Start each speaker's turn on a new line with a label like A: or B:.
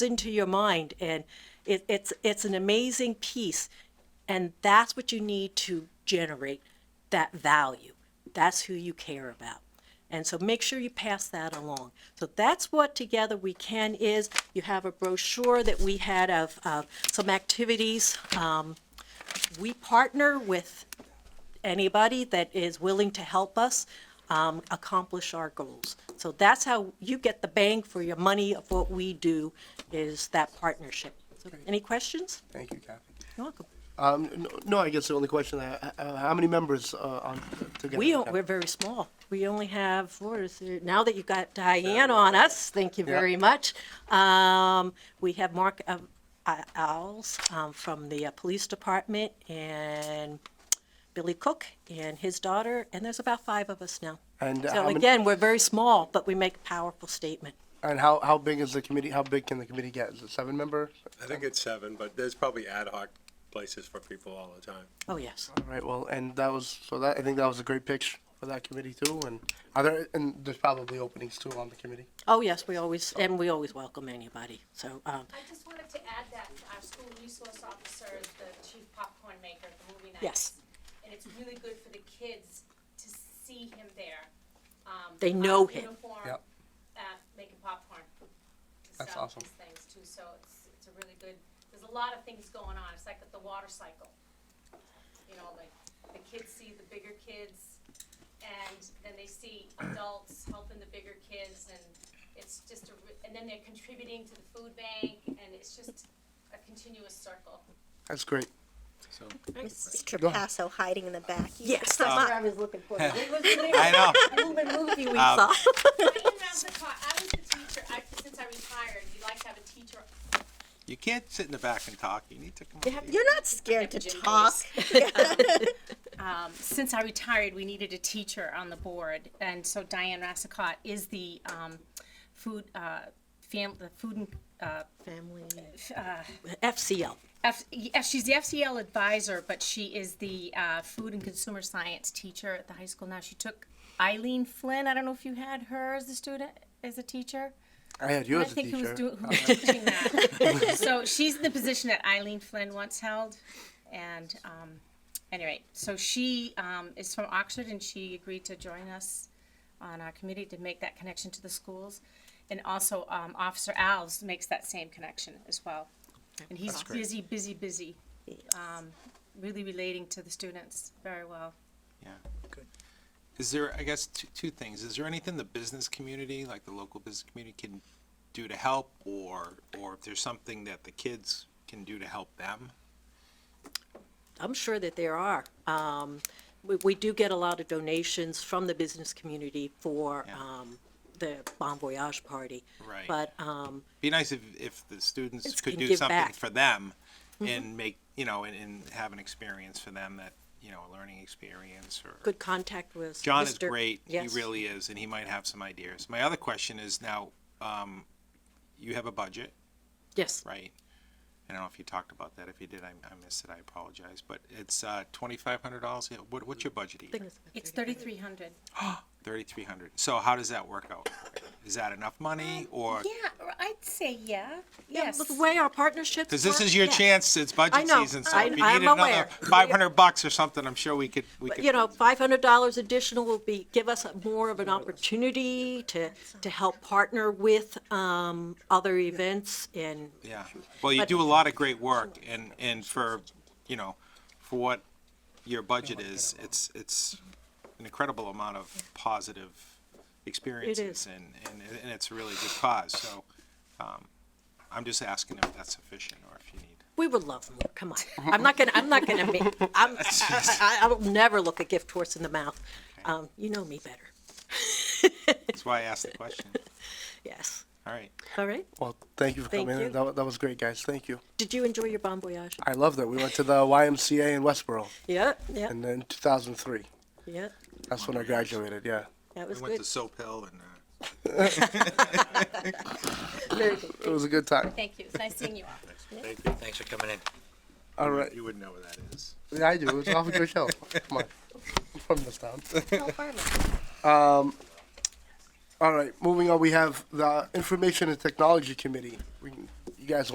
A: into your mind and it, it's it's an amazing piece and that's what you need to generate that value that's who you care about and so make sure you pass that along so that's what together we can is you have a brochure that we had of, of some activities um, we partner with anybody that is willing to help us um, accomplish our goals. So that's how you get the bang for your money of what we do is that partnership. So any questions?
B: Thank you, Kathy.
A: You're welcome.
B: Um, n- no, I guess the only question, I- uh, how many members uh, on together?
A: We don't, we're very small. We only have, what is it, now that you've got Diane on us, thank you
B: Yeah.
A: very much. Um, we have Mark um, I- Owls um, from the uh, Police Department and Billy Cook and his daughter, and there's about five of us now.
B: And uh,
A: So
B: how many-
A: again, we're very small, but we make a powerful statement.
B: And how, how big is the committee, how big can the committee get? Is it seven member?
C: I think it's seven, but there's probably ad hoc places for people all the time.
A: Oh, yes.
B: All right, well, and that was, so that, I think that was a great pitch for that committee too, and are there, and there's probably openings too on the committee?
A: Oh, yes, we always, and we always welcome anybody. So, um,
D: I just wanted to add that our school resource officer is the chief popcorn maker at the movie nights.
A: Yes.
D: And it's really good for the kids to see him there. um,
A: They
D: out of
A: know him.
D: Uniform,
B: Yep.
D: uh, making popcorn. to
B: That's
D: sell
B: awesome.
D: these Things too, so it's, it's a really good, there's a lot of things going on. It's like the water cycle. You know, like the kids see the bigger kids and then they see adults helping the bigger kids and it's just a, re- and then they're contributing to the food bank and it's just a continuous circle.
B: That's great.
E: So
F: Mrs.
B: Go ahead.
F: Trapasso hiding in the back. You
A: yes,
F: just-
A: that's what I was looking for. It was a
E: I know.
A: little movie we saw.
D: I didn't have the car, I was the teacher, I, since I retired, you like to have a teacher.
E: You can't sit in the back and talk. You need to come. up here.
F: You're not scared to
D: Jim
F: talk.
D: Um, since I retired, we needed a teacher on the board and so Diane Rassicott is the, um, food, uh, fam, the food and, uh,
A: Family, FCL.
D: F, yeah, she's the FCL advisor, but she is the uh, food and consumer science teacher at the high school now. She took Eileen Flynn. I don't know if you had her as a student, as a teacher.
B: I had you
D: I
B: as a
D: think who was,
B: teacher.
D: doing, who was
E: Oh.
D: teaching that. so she's the position that Eileen Flynn once held, and um, anyway, so she um, is from Oxford, and she agreed to join us on our committee to make that connection to the schools, and also um, Officer Alves makes that same connection as well, and he's
E: That's great.
D: busy, busy, busy, um, really relating to the students very well.
E: Yeah. Good. Is there? I guess two, two things. Is there anything the business community, like the local business community, can do to help, or or if there's something that the kids can do to help them?
A: I'm sure that there are. Um, we, we do get a lot of donations from the business community for,
E: Yeah.
A: um, the Bon Voyage party.
E: Right.
A: But, um,
E: Be nice if if the students
A: Kids
E: could
A: can
E: do
A: give
E: something
A: back. Mm-hmm.
E: for them, and make you know, and, and have an experience for them that you know, a learning experience or
A: good contact with.
E: John is
A: Mr.
E: great.
A: Yes.
E: He really is, and he might have some ideas. My other question is now, um, you have a budget,
A: Yes,
E: right? I don't know if you talked about that. If you did, I, I missed it. I apologize. But it's uh, twenty five hundred dollars. What, what's your budget?
A: I think it's about
D: It's
A: 30.
D: thirty-three hundred.
E: Thirty three hundred. So how does that work out? Is that enough
A: Um,
E: money, or
D: Yeah, I'd say yeah.
A: Yeah,
D: Yes.
A: but the way our partnerships.
E: because this
A: work,
E: is your
A: yes.
E: chance? It's budget
A: I know.
E: season, so
A: I-
E: if you
A: I'm
E: needed another
A: aware.
E: five hundred bucks or something, I'm sure we could. We
A: But,
E: could.
A: you know, five hundred dollars additional will be, give us a- more of an opportunity to, to help partner with, um, other events and,
E: Yeah, well, you
A: But-
E: do a lot of great work and, and for, you know, for what your budget is, it's, it's an incredible amount of positive experiences and, and, and it's a really good cause, so, um, I'm just asking if that's sufficient or if you need.
A: we would love more, come on. I'm not gonna, I'm not gonna make, I'm, I, I, I will never look a gift horse in the mouth. Um, you know me better,
E: That's why I asked the question.
A: yes,
E: All right,
A: all right?
B: Well, thank you for
A: Thank
B: coming
A: you.
B: in. That, wa- that was great, guys. Thank you.
A: Did you enjoy your Bon Voyage?
B: I love that. We went to the YMCA in Westboro
A: Yep, yep,
B: and then two thousand three.
A: yep,
B: That's
A: Oh
B: when I graduated, yeah.
A: that
E: we
A: was
E: went
A: good,
E: to Soap Hill and, uh,
A: very good.
B: It was a good time.
D: Thank you. It's nice seeing you all.
C: Thank you.
G: Thanks for coming in.
B: All right.
E: you wouldn't know where that is.
B: Yeah, I do. It's off a good show. Come on. I'm from this town.
F: No farmer.
B: All right, moving on, we have the Information and Technology Committee. We can- guys